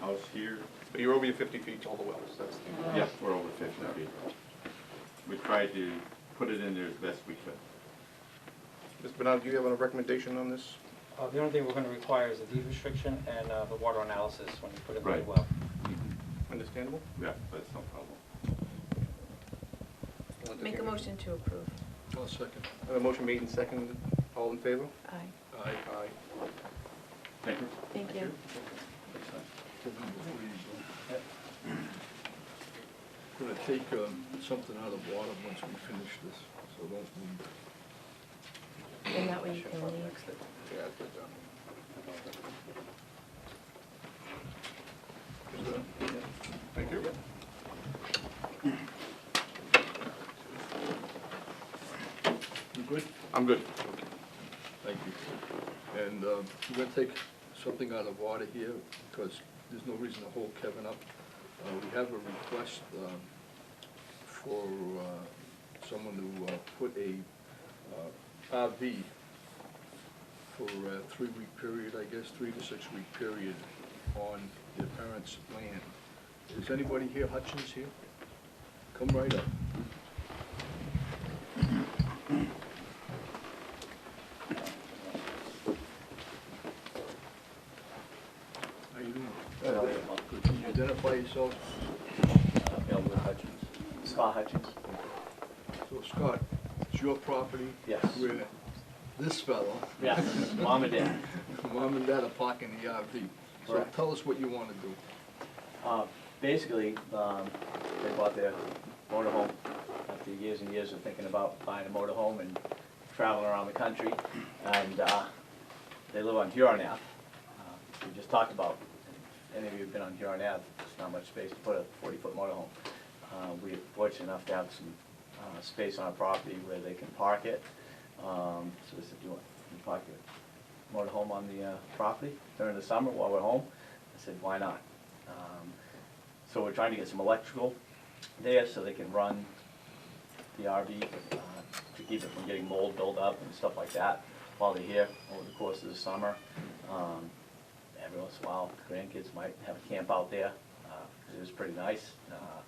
house here, But you're over your fifty feet to all the wells, that's the. yes, we're over fifty feet. We tried to put it in there as best we could. Mr. Bernard, do you have a recommendation on this? Uh, The only thing we're going to require is a deed restriction and uh, the water analysis when you put it in Right. the well. Mm-hmm. Understandable? Yeah, that's no problem. Make a motion to approve. I'll second. Uh, motion made and seconded, all in favor? Aye. Aye. Aye. Thank you. Thank you. I'm gonna take um, something out of water once we finish this, so don't leave. And that way you can leave. Yeah, I put down. Thank you. You good? I'm good. Thank you. And um, we're gonna take something out of order here, because there's no reason to hold Kevin up. Uh, We have a request um, for uh, someone to uh, put a uh, RV for a three-week period, I guess, three to six-week period on their parents' land. Is anybody here, Hutchins here? Come right up. How you doing? Good. Can you Identify yourself. Elwood Hutchins. Scott Hutchins? So Scott, it's your property. Yes. Where this fellow, Yes, mom and dad. mom and dad are parking the RV. So Correct. tell us what you want to do. Uh, Basically, um, they bought their motorhome after years and years of thinking about buying a motorhome and traveling around the country. And uh, they live on Huron Ave. uh, We just talked about, any of you who've been on Huron Ave, there's not much space to put a forty-foot motorhome. Uh, We're fortunate enough to have some uh, space on our property where they can park it. Um, So they said, do you want, you can park your motorhome on the uh, property during the summer while we're home? I said, why not? Um, So we're trying to get some electrical there so they can run the RV uh, to keep it from getting mold buildup and stuff like that while they're here over the course of the summer. Um, Every once in a while, grandkids might have a camp out there, because it was pretty nice. uh,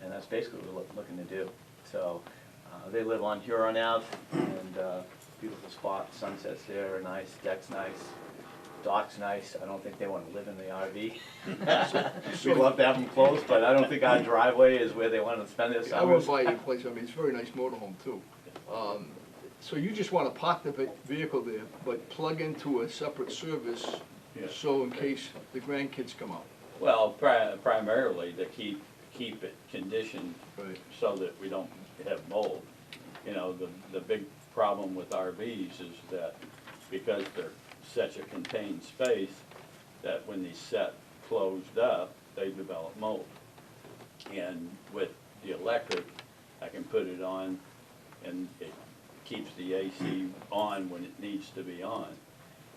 And that's basically what we're loo- looking to do. So uh, they live on Huron Ave, and uh, beautiful spot, sunsets there are nice, deck's nice, dock's nice. I don't think they want to live in the RV. We'd love to have them close, but I don't think our driveway is where they want to spend their I went summers. by your place, I mean, it's a very nice motorhome too. Um, So you just want to park the ve- vehicle there, but plug into a separate service, Yeah. so in case the grandkids come out. Well, pri- primarily to keep, keep it conditioned Right. so that we don't have mold. You know, the, the big problem with RVs is that because they're such a contained space, that when they set closed up, they develop mold. And with the electric, I can put it on and it keeps the AC on when it needs to be on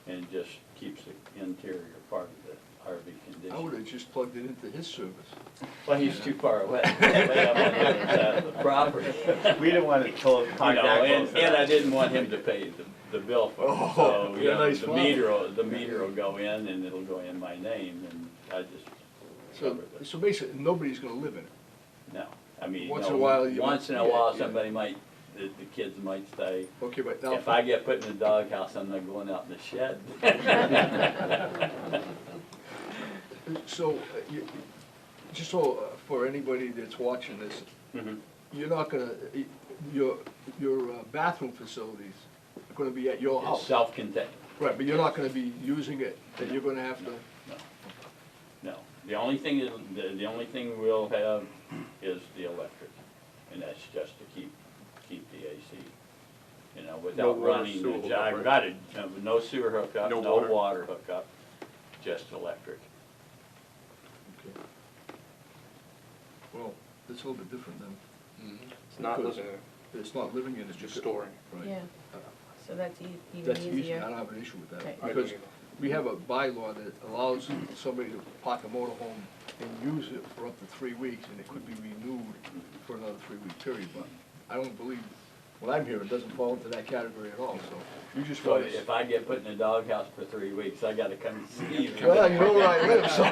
and just keeps the interior part of the RV conditioned. I would have just plugged it into his service. Well, he's too far away. Way up on the other side of the property. We didn't want to pull You know, uh, and, and I contact. didn't want him to pay the, the bill for it. Oh, So, you yeah, know, nice the one. meter, will- the meter will go in and it'll go in my name and I just So, covered it. so basically, nobody's going to live in it. No, I mean, Once in no, a while you- Once in a yeah, while, yeah. somebody might, the, the kids might stay. Okay, but now. If I get put in the doghouse, I'm not going out in the shed. So, uh, you, just so, uh, for anybody that's watching this, Mm-hmm. Mhm. you're not gonna, y- your, your uh, bathroom facilities are gonna be at your It's house. self-contained. Right, but you're not gonna be using it, that you're gonna have to, No, the only thing, that- the, the only thing we'll have is the electric, and that's just to keep, keep the AC, you know, without water, running sewer the hookup, job. right? Got it, no- no sewer hookup, No no water. water hookup, just electric. well, it's a little bit different than, It's not living there, it's not living in it. it's just storing. Right. Yeah, so that's e- even That's easy, I easier. don't have an issue with that, Right. I because agree. we have a bylaw that allows somebody to park a motorhome and use it for up to three weeks, and it could be renewed for another three-week period, but I don't believe, what I'm hearing, doesn't fall into that category at all, so you just So want if I get put in a doghouse for three weeks, I gotta come see you. Well, you know where I live, so.